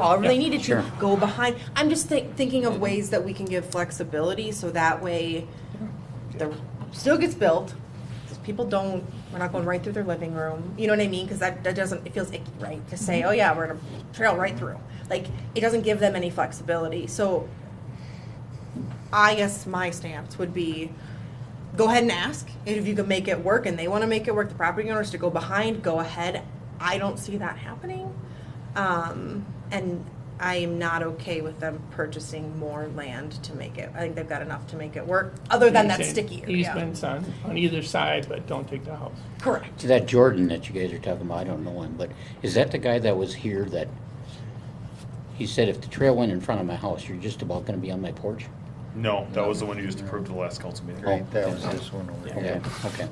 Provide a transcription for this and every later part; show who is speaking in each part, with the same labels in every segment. Speaker 1: all, I really
Speaker 2: Yeah,
Speaker 1: needed
Speaker 2: sure.
Speaker 1: to go behind. I'm just thi- thinking of ways that we can give flexibility so that way the, still gets built, 'cause people don't, we're not going right through their living room, you know what I mean? Because that, that doesn't, it feels icky, right, to say, oh yeah, we're gonna trail right through. Like, it doesn't give them any flexibility, so I guess my stance would be, go ahead and ask if you can make it work and they want to make it work the property owners to go behind go ahead i don't see that happening um, and i am not okay with them purchasing more land to make it i think they've got enough to make it work other than that sticky area
Speaker 3: Easements on, on either side, but don't take the house.
Speaker 1: correct
Speaker 2: To that Jordan that you guys are talking about, I don't know him, but is that the guy that was here that, he said if the trail went in front of my house, you're just about gonna be on my porch?
Speaker 4: No, that was the one you just approved at the last council meeting.
Speaker 2: Oh,
Speaker 5: That was this one over
Speaker 2: Okay,
Speaker 5: here.
Speaker 2: okay,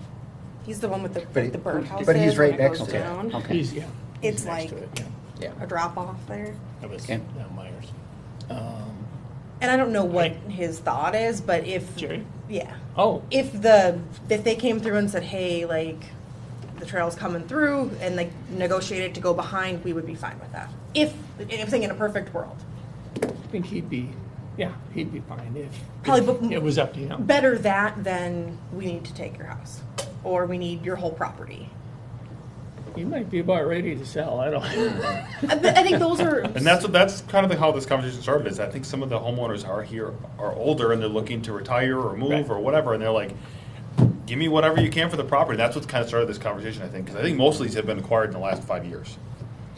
Speaker 1: he's the one with the,
Speaker 5: But he-
Speaker 1: the birdhouse
Speaker 5: but he's
Speaker 1: is when
Speaker 5: right
Speaker 1: it goes
Speaker 5: next to
Speaker 2: okay,
Speaker 1: down.
Speaker 2: okay.
Speaker 3: He's, yeah.
Speaker 1: It's
Speaker 3: he's next
Speaker 1: like-
Speaker 3: to it, yeah.
Speaker 5: Yeah.
Speaker 1: a drop off there
Speaker 6: That was
Speaker 2: Okay.
Speaker 6: uh, Myers. Um,
Speaker 1: and i don't know what his thought is but if
Speaker 3: Jerry?
Speaker 1: yeah
Speaker 3: Oh,
Speaker 1: if the if they came through and said, "Hey, like the trail's coming through," and like negotiated to go behind, we would be fine with that. If if thing in a perfect world,
Speaker 3: I think he'd be, yeah, he'd be fine if.
Speaker 1: Probably,
Speaker 3: if
Speaker 1: but-
Speaker 3: It was up to him.
Speaker 1: better that than we need to take your house or we need your whole property.
Speaker 3: He might be about ready to sell, I don't.
Speaker 1: I, but I think those are
Speaker 4: And that's, that's kind of the- how this conversation started, is I think some of the homeowners are here, are older, and they're looking to retire or
Speaker 3: Right.
Speaker 4: move or whatever, and they're like, give me whatever you can for the property, and that's what's kind of started this conversation, I think, because I think most of these have been acquired in the last five years.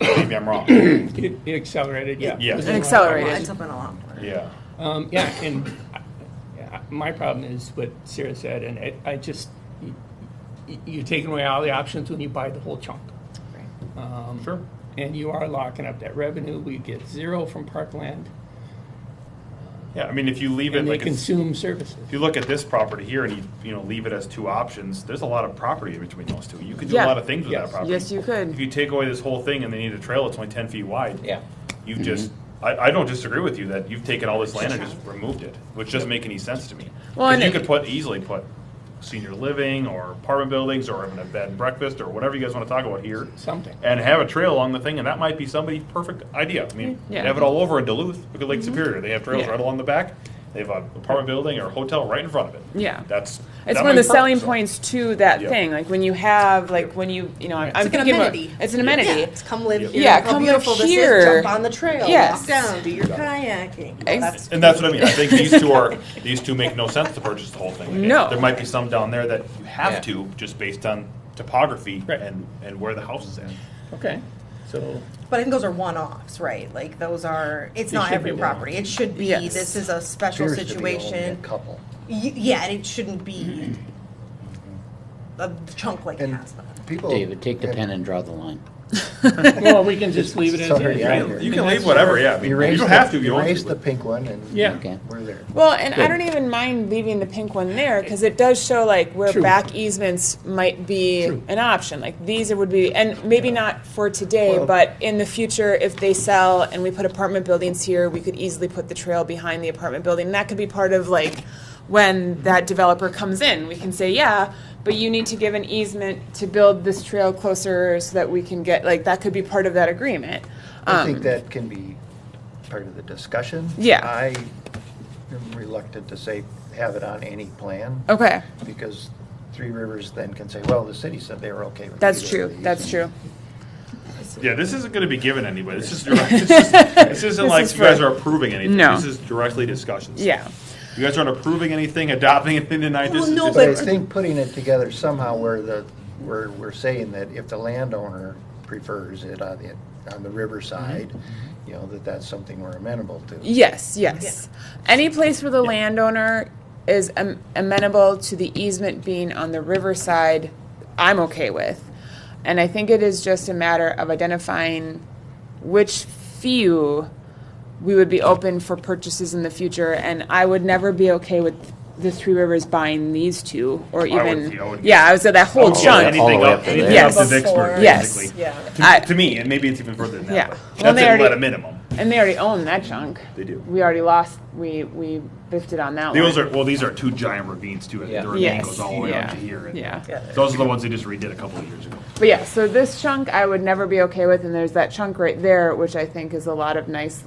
Speaker 4: Maybe I'm wrong,
Speaker 3: It it accelerated, yeah. It
Speaker 4: Yeah. It
Speaker 1: It's been a long time.
Speaker 4: yeah.
Speaker 3: Um, yeah, and I- yeah, my problem is what Sarah said, and I, I just, you, you're taking away all the options when you buy the whole chunk. Um,
Speaker 4: Sure.
Speaker 3: And you are locking up that revenue. We get zero from Parkland,
Speaker 4: Yeah, I mean, if you leave it
Speaker 3: and they
Speaker 4: like, it's- if
Speaker 3: consume services.
Speaker 4: you look at this property here and you, you know, leave it as two options, there's a lot of property in between those two. You could do a
Speaker 7: Yeah.
Speaker 4: lot of things with that
Speaker 3: Yes.
Speaker 4: property.
Speaker 7: Yes, you
Speaker 4: If
Speaker 7: could.
Speaker 4: you take away this whole thing and they need a trail, it's only ten feet wide.
Speaker 2: Yeah.
Speaker 4: You've just, I, I don't disagree with you that you've taken all this land and just removed it, which doesn't make any sense to me.
Speaker 7: Well,
Speaker 4: Because
Speaker 7: and
Speaker 4: you
Speaker 7: it-
Speaker 4: could put, easily put senior living or apartment buildings or even a bed and breakfast or whatever you guys wanna talk about here.
Speaker 3: Something.
Speaker 4: And have a trail along the thing, and that might be somebody's perfect idea. I mean, they
Speaker 7: Yeah.
Speaker 4: have it all over in Duluth, look at Lake Superior, they have trails
Speaker 7: Mm-hmm. Yeah.
Speaker 4: right along the back. They have an apartment building or a hotel right in front of it.
Speaker 7: Yeah.
Speaker 4: That's.
Speaker 7: It's
Speaker 4: that
Speaker 7: one of
Speaker 4: might
Speaker 7: the
Speaker 4: be perfect,
Speaker 7: selling
Speaker 4: so.
Speaker 7: points to that
Speaker 4: Yeah.
Speaker 7: thing. Like when you have, like when you, you know, I'm,
Speaker 1: It's like
Speaker 7: I'm
Speaker 1: an
Speaker 7: thinking about-
Speaker 1: amenity.
Speaker 7: it's an
Speaker 1: Yeah,
Speaker 7: amenity.
Speaker 1: it's come live here.
Speaker 7: Yeah,
Speaker 1: how
Speaker 7: come live
Speaker 1: beautiful this is,
Speaker 7: here.
Speaker 1: Jump on the trail.
Speaker 7: Yes.
Speaker 1: Walk down. Do your kayaking.
Speaker 7: Ex-
Speaker 1: That's-
Speaker 4: And that's what I mean. I think these two are, these two make no sense to purchase the whole thing.
Speaker 7: No.
Speaker 4: There might be some down there that you
Speaker 5: Yeah.
Speaker 4: have to, just based on topography
Speaker 3: Right.
Speaker 4: and, and where the house is at.
Speaker 3: Okay, so
Speaker 1: But I think those are one-offs, right? Like those are. It's
Speaker 3: They
Speaker 1: not
Speaker 3: should
Speaker 1: every
Speaker 3: be
Speaker 1: property. It should be.
Speaker 7: Yes.
Speaker 1: This is a special
Speaker 5: Appears to be
Speaker 1: situation.
Speaker 5: only a Couple.
Speaker 1: Y- Yeah, and it shouldn't be a chunk like it
Speaker 5: And
Speaker 1: has been.
Speaker 5: people.
Speaker 2: David, take the
Speaker 5: have-
Speaker 2: pen and draw the line.
Speaker 3: well, we can just leave it as
Speaker 5: Sorry,
Speaker 3: is.
Speaker 5: yeah.
Speaker 3: right?
Speaker 4: You can leave whatever, yeah. I mean, You
Speaker 5: Erase
Speaker 4: don't
Speaker 5: the-
Speaker 4: have to, you don't
Speaker 5: Erase
Speaker 4: have
Speaker 5: the
Speaker 4: to.
Speaker 5: pink one and.
Speaker 3: Yeah.
Speaker 2: Okay.
Speaker 5: We're there.
Speaker 7: Well, and I
Speaker 2: Good.
Speaker 7: don't even mind leaving the pink one there because it does show like where
Speaker 3: True.
Speaker 7: back easements might be
Speaker 3: True.
Speaker 7: an option. Like these would be, and maybe not for today,
Speaker 5: Well-
Speaker 7: but in the future, if they sell and we put apartment buildings here, we could easily put the trail behind the apartment building. And that could be part of like when that developer comes in, we can say, yeah, but you need to give an easement to build this trail closer so that we can get like that could be part of that agreement. Um,
Speaker 5: I think that can be part of the discussion.
Speaker 7: Yeah.
Speaker 5: I am reluctant to say, have it on any plan,
Speaker 7: Okay,
Speaker 5: because Three Rivers then can say, well, the city said they were okay with.
Speaker 7: that's
Speaker 5: either of
Speaker 7: true.
Speaker 5: these.
Speaker 7: That's true.
Speaker 4: Yeah, this isn't gonna be given anybody. This is direct, this is- this isn't
Speaker 7: This
Speaker 4: like
Speaker 7: is
Speaker 4: you guys
Speaker 7: for-
Speaker 4: are approving anything.
Speaker 7: No.
Speaker 4: This is directly discussions.
Speaker 7: Yeah.
Speaker 4: You guys aren't approving anything, adopting anything tonight. This
Speaker 1: Well,
Speaker 4: is
Speaker 1: no,
Speaker 4: just-
Speaker 5: But I
Speaker 1: But-
Speaker 5: think putting it together somehow where the, where we're saying that if the landowner prefers it on the, on the riverside, you know, that that's something we're amenable to.
Speaker 7: Yes, yes. Any place where the landowner is am- amenable to the easement being on the riverside, I'm okay with. And I think it is just a matter of identifying which few we would be open for purchases in the future. And I would never be okay with the Three Rivers buying these two or
Speaker 4: I would-
Speaker 7: even,
Speaker 4: I would- Oh,
Speaker 7: yeah, I was at that whole
Speaker 4: Yeah,
Speaker 7: chunk.
Speaker 2: All the
Speaker 4: Anything
Speaker 2: way
Speaker 4: up,
Speaker 2: up to
Speaker 4: anything
Speaker 7: there.
Speaker 4: up to
Speaker 7: Yes.
Speaker 4: Vicksburg,
Speaker 1: Before-
Speaker 7: Yes.
Speaker 4: basically.
Speaker 1: Yeah.
Speaker 4: To-
Speaker 7: I-
Speaker 4: To me, and maybe it's even further than
Speaker 7: Yeah.
Speaker 4: that,
Speaker 7: Well,
Speaker 4: but that's
Speaker 7: they
Speaker 4: it,
Speaker 7: already-
Speaker 4: at a minimum.
Speaker 7: And they already own that chunk.
Speaker 4: They do.
Speaker 7: We already lost, we, we biffed it on that one.
Speaker 4: Those are, well, these are two giant ravines too. I
Speaker 2: Yeah.
Speaker 4: think the ravine
Speaker 7: Yes,
Speaker 4: goes all the way
Speaker 7: yeah,
Speaker 4: up to here. and
Speaker 7: Yeah.
Speaker 4: Those are the ones they just redid a couple of years ago.
Speaker 7: But yeah, so this chunk I would never be okay with, and there's that chunk right there, which I think is a lot of nice